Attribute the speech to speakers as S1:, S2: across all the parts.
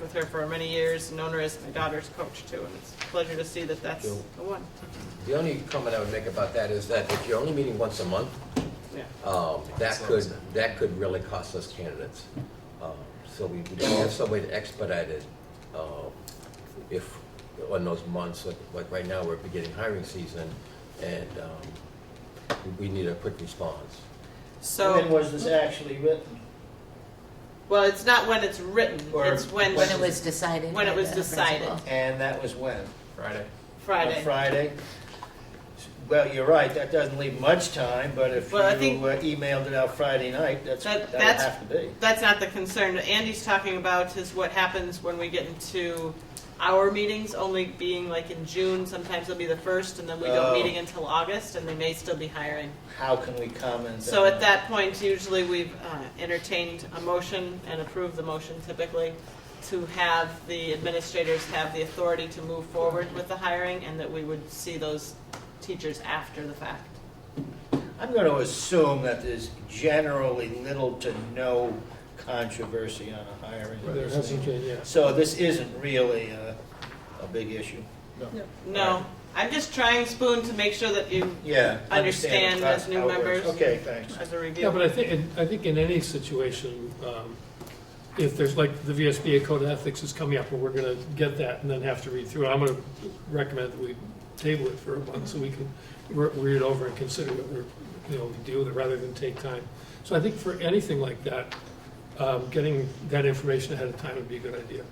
S1: with her for many years, known her as my daughter's coach too, and it's a pleasure to see that that's
S2: Cool.
S1: the one.
S2: The only comment I would make about that is that if you're only meeting once a month,
S1: Yeah,
S2: um, that
S3: Slows
S2: could,
S3: down.
S2: that could really cost us candidates. Um, So we we have some way to expedite it um, if, on those months, like, like right now, we're beginning hiring season, and um, we- we need a quick response.
S4: When
S1: so,
S4: was this actually written?
S1: well, it's not when it's written,
S4: Or
S1: it's when,
S5: When it was decided.
S1: When it
S5: by
S1: was
S5: the
S1: decided.
S5: principal.
S4: And that was when?
S3: Friday.
S4: On
S1: Friday.
S4: Friday? Well, you're right, that doesn't leave much time, but if you
S1: Well, I think-
S4: uh, emailed it out Friday night, that's,
S1: That-
S4: that'll
S1: that's-
S4: have to be.
S1: That's not the concern, What Andy's talking about is what happens when we get into our meetings, only being like in June, sometimes it'll be the first, and then we go
S4: Oh.
S1: meeting until August, and they may still be hiring.
S4: How can we comment?
S1: So
S4: on
S1: at that point, usually we've uh, entertained a motion and approved the motion typically to have the administrators have the authority to move forward with the hiring and that we would see those teachers after the fact.
S4: I'm going to assume that there's generally little to no controversy on a hiring. of
S6: There
S4: this
S6: hasn't
S4: thing.
S6: been, yeah.
S4: So this isn't really a, a big issue.
S1: No, I'm just trying spoon to make sure that you,
S4: Yeah.
S1: Understand
S4: how-
S1: as new
S4: how it works.
S1: members.
S4: Okay, thanks.
S1: as a
S6: Yeah, but
S1: review.
S6: I think, and I think in any situation, um, if there's like the VSBA Code of Ethics is coming up, and we're gonna get that and then have to read through it, I'm gonna recommend that we table it for a month so we can re- read it over and consider what we're, you know, we deal with it rather than take time. So I think for anything like that, um, getting that information ahead of time would be a good idea.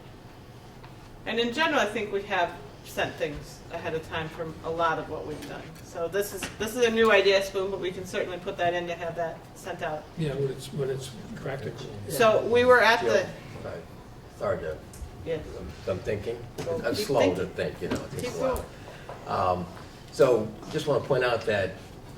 S1: And in general, I think we have sent things ahead of time from a lot of what we've done. So this is, this is a new idea, Spoon, but we can certainly put that in to have that sent out.
S6: Yeah, when it's, when it's practical.
S1: So we were at the,
S2: Yeah, right. Sorry to,
S1: yeah,
S2: I'm- I'm thinking,
S1: Well,
S2: I'm
S1: keep
S2: slow to
S1: thinking.
S2: think, you know, it takes
S1: Keep
S2: a while. Um, So, just want to point out that,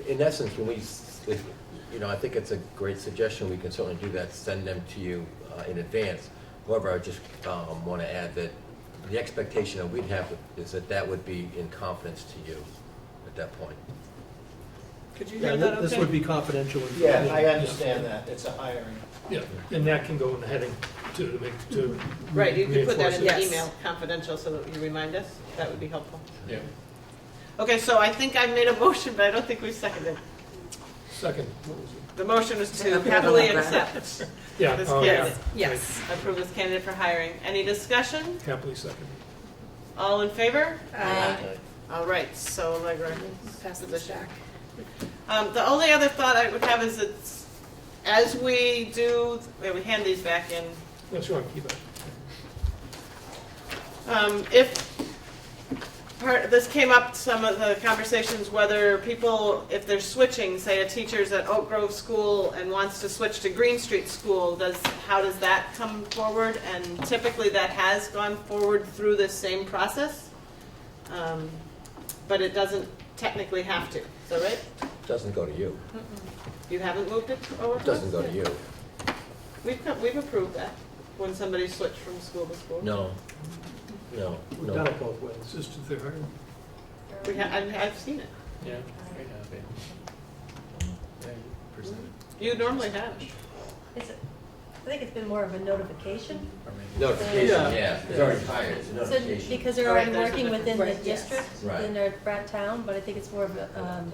S2: in essence, when we, s- if- you know, I think it's a great suggestion, we can certainly do that, send them to you uh, in advance. However, I just want to add that the expectation that we'd have is that that would be in confidence to you at that point.
S1: could you
S7: Yeah,
S1: hear that okay?
S7: This would be confidential.
S4: Yeah, I understand that, it's a hiring.
S6: Yeah, and that can go in the heading to, to make, to.
S1: Right, you could put that in
S6: reinforce
S1: the
S5: Yes.
S1: email, confidential, so that you remind us, that would be helpful.
S3: Yeah.
S1: Okay, so I think I made a motion, but I don't think we seconded.
S6: it. Second, what was it?
S1: The motion was to
S5: Okay,
S1: happily
S5: I'll
S1: accept,
S6: Yeah,
S1: This
S6: oh, yeah.
S1: candidate.
S5: Yes.
S1: approve this candidate for hiring. Any discussion?
S6: Happily second.
S1: All in favor?
S5: Aye.
S1: All right, so Allegra.
S5: Pass this back.
S1: Um, the only other thought I would have is it's, as we do, we hand these back in
S6: That's wrong, keep it.
S1: Um, if, part, this came up, some of the conversations, whether people, if they're switching, say a teacher's at Oak Grove School and wants to switch to Green Street School, does, how does that come forward? And typically that has gone forward through this same process. Um, But it doesn't technically have to, is that right?
S2: Doesn't go to you,
S1: You haven't moved it over?
S2: It doesn't go to you,
S1: We've, co- we've approved that, when somebody switched from school to school.
S2: no, no,
S7: We've
S2: no.
S7: done it both ways.
S6: It's just if they're hiring.
S1: We ha I've, I've seen it.
S3: Yeah. Very happy. They presented,
S1: You normally have.
S8: It's, I think it's been more of a notification,
S3: or maybe-
S2: Notification,
S7: Yeah.
S2: yeah, it's already hired, it's a
S8: so,
S2: notification.
S8: because they're
S1: Right,
S8: already
S1: there's a
S8: working within the
S5: difference. Right, yes.
S8: district,
S2: Right.
S8: within their frat town, but I think it's more of a, um,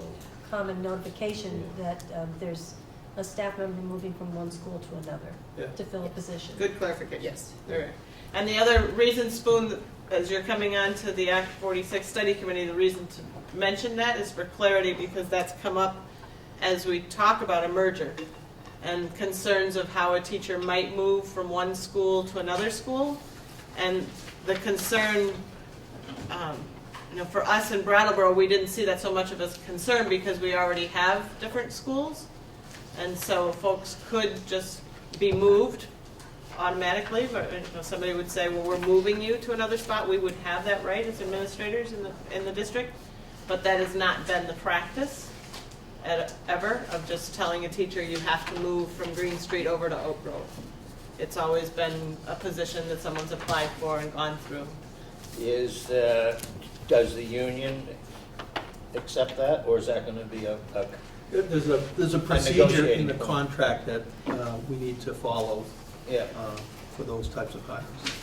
S8: common notification that, um, there's a staff member moving from one school to another
S7: Yeah.
S8: to fill a position.
S1: Good clarification.
S5: Yes.
S1: All right. And the other reason, Spoon, as you're coming on to the Act 46 Study Committee, the reason to mention that is for clarity, because that's come up as we talk about a merger and concerns of how a teacher might move from one school to another school. And the concern, um, you know, for us in Brattleboro, we didn't see that so much of a concern because we already have different schools. And so folks could just be moved automatically, but you know, somebody would say, well, we're moving you to another spot, we would have that right as administrators in the, in the district. But that has not been the practice at, ever, of just telling a teacher, you have to move from Green Street over to Oak Grove. It's always been a position that someone's applied for and gone through.
S4: Is, uh, does the union accept that, or is that going to be a, a-
S7: There's a, there's a procedure in the
S4: negotiating.
S7: contract that uh, we need to follow
S4: yeah,
S7: uh, for those types of hires.